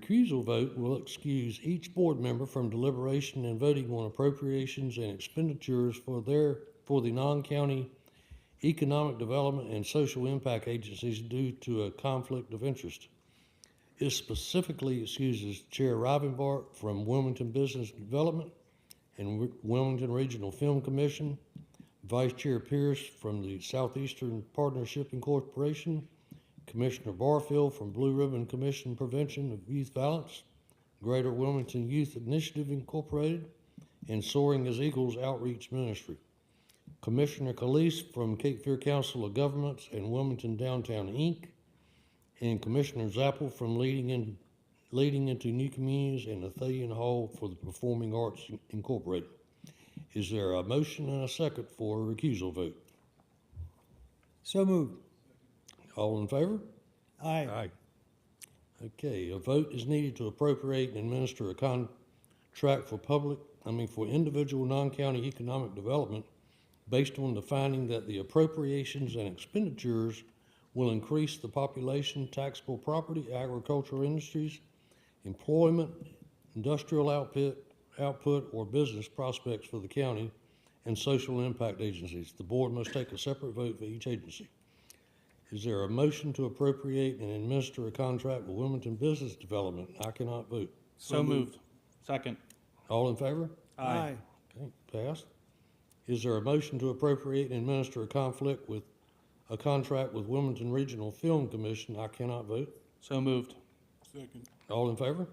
Recusal vote will excuse each board member from deliberation and voting on appropriations and expenditures for their, for the non-county economic development and social impact agencies due to a conflict of interest. It specifically excuses Chair Rivenbark from Wilmington Business Development and Wi- Wilmington Regional Film Commission, Vice Chair Pierce from the Southeastern Partnership Incorporation, Commissioner Barfield from Blue Ribbon Commission Prevention of Youth Violence, Greater Wilmington Youth Initiative Incorporated, and Soaring as Eagles Outreach Ministry. Commissioner Calise from Cape Fear Council of Governments and Wilmington Downtown Inc., and Commissioner Zappel from Leading in, Leading into New Communities and Athelion Hall for the Performing Arts Incorporated. Is there a motion and a second for a recusal vote? So moved. All in favor? Aye. Okay, a vote is needed to appropriate and administer a contract for public, I mean, for individual non-county economic development based on the finding that the appropriations and expenditures will increase the population, taxable property, agricultural industries, employment, industrial output, output or business prospects for the county, and social impact agencies. The board must take a separate vote for each agency. Is there a motion to appropriate and administer a contract with Wilmington Business Development? I cannot vote. So moved. Second. All in favor? Aye. Okay, passed. Is there a motion to appropriate and administer a conflict with, a contract with Wilmington Regional Film Commission? I cannot vote. So moved. All in favor?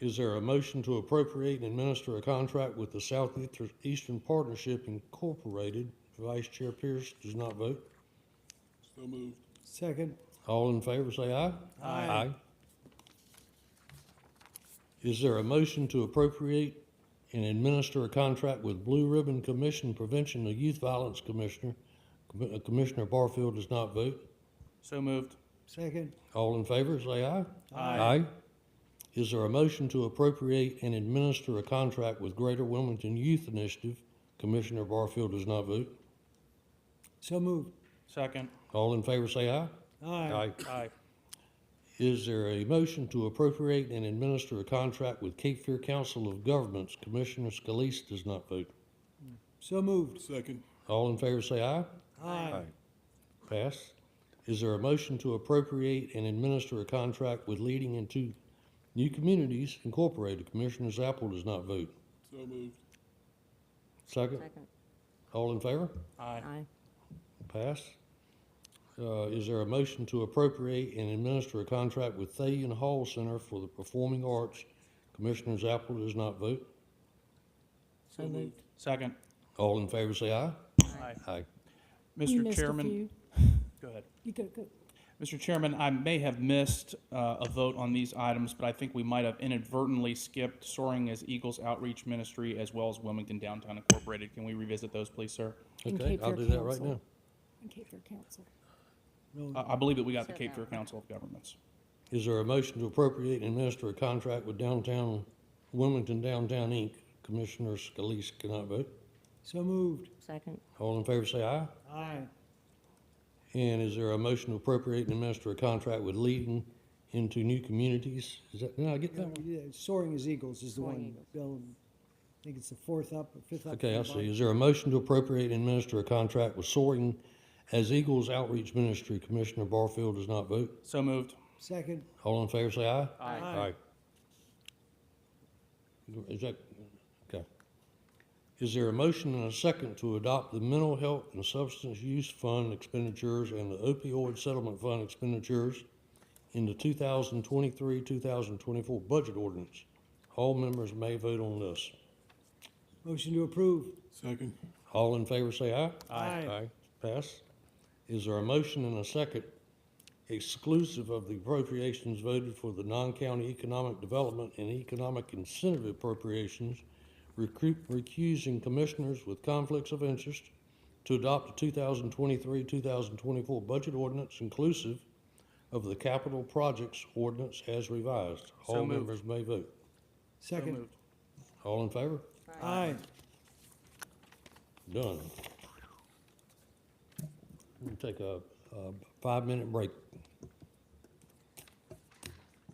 Is there a motion to appropriate and administer a contract with the Southeastern Partnership Incorporated? Vice Chair Pierce does not vote. Second. All in favor, say aye. Aye. Is there a motion to appropriate and administer a contract with Blue Ribbon Commission Prevention of Youth Violence Commissioner? Commi- uh, Commissioner Barfield does not vote. So moved. Second. All in favor, say aye. Aye. Is there a motion to appropriate and administer a contract with Greater Wilmington Youth Initiative? Commissioner Barfield does not vote. So moved. Second. All in favor, say aye. Aye. Is there a motion to appropriate and administer a contract with Cape Fear Council of Governments? Commissioner Scalise does not vote. So moved. Second, All in favor say aye. Aye. Pass. Is there a motion to appropriate and administer a contract with Leading into New Communities Incorporated? Commissioner Zappel does not vote. so moved. Second, Second. all in favor? Aye. Aye. Pass. Uh, is there a motion to appropriate and administer a contract with Thayin Hall Center for the Performing Arts? Commissioner Zappel does not vote. So moved. Second. All in favor say aye. Aye. Aye. You Mr. missed a Chairman, few. go ahead. You go, go. Mr. Chairman, I may have missed uh, a vote on these items, but I think we might have inadvertently skipped Soaring as Eagles Outreach Ministry as well as Wilmington Downtown Incorporated. Can we revisit those, please, sir? And Okay, Cape I'll Fear do that right Council. now. And Cape Fear Council. I I believe that we got the Sir, Cape no. Fear Council of Governments. Is there a motion to appropriate and administer a contract with downtown, Wilmington Downtown Inc.? Commissioner Scalise cannot vote. So moved. Second. All in favor say aye. Aye. And is there a motion to appropriate and administer a contract with Leading into New Communities? Is that, did I get that one? Yeah, Soaring as Eagles is the Soaring one, Eagles. Bill, I think it's the fourth up, or fifth up. Okay, I from the see. Is there a motion to appropriate and administer a contract with Soaring as Eagles Outreach Ministry? Commissioner Barfield does not vote. So moved. bottom. Second. All in favor say aye. Aye. Is that, okay. Is there a motion and a second to adopt the Mental Health and Substance Use Fund expenditures and the opioid settlement fund expenditures in the two thousand twenty-three, two thousand twenty-four budget ordinance? All members may vote on this. Motion to approve. Second, All in favor say aye. Aye. Pass. Is there a motion and a second exclusive of the appropriations voted for the non-county economic development and economic incentive appropriations, recru- recusing commissioners with conflicts of interest to adopt the 2023, 2024 budget ordinance inclusive of the capital projects ordinance as revised? So All moved. members may vote. So Second. moved. All in favor? Aye. Done. We'll take a, a five-minute break.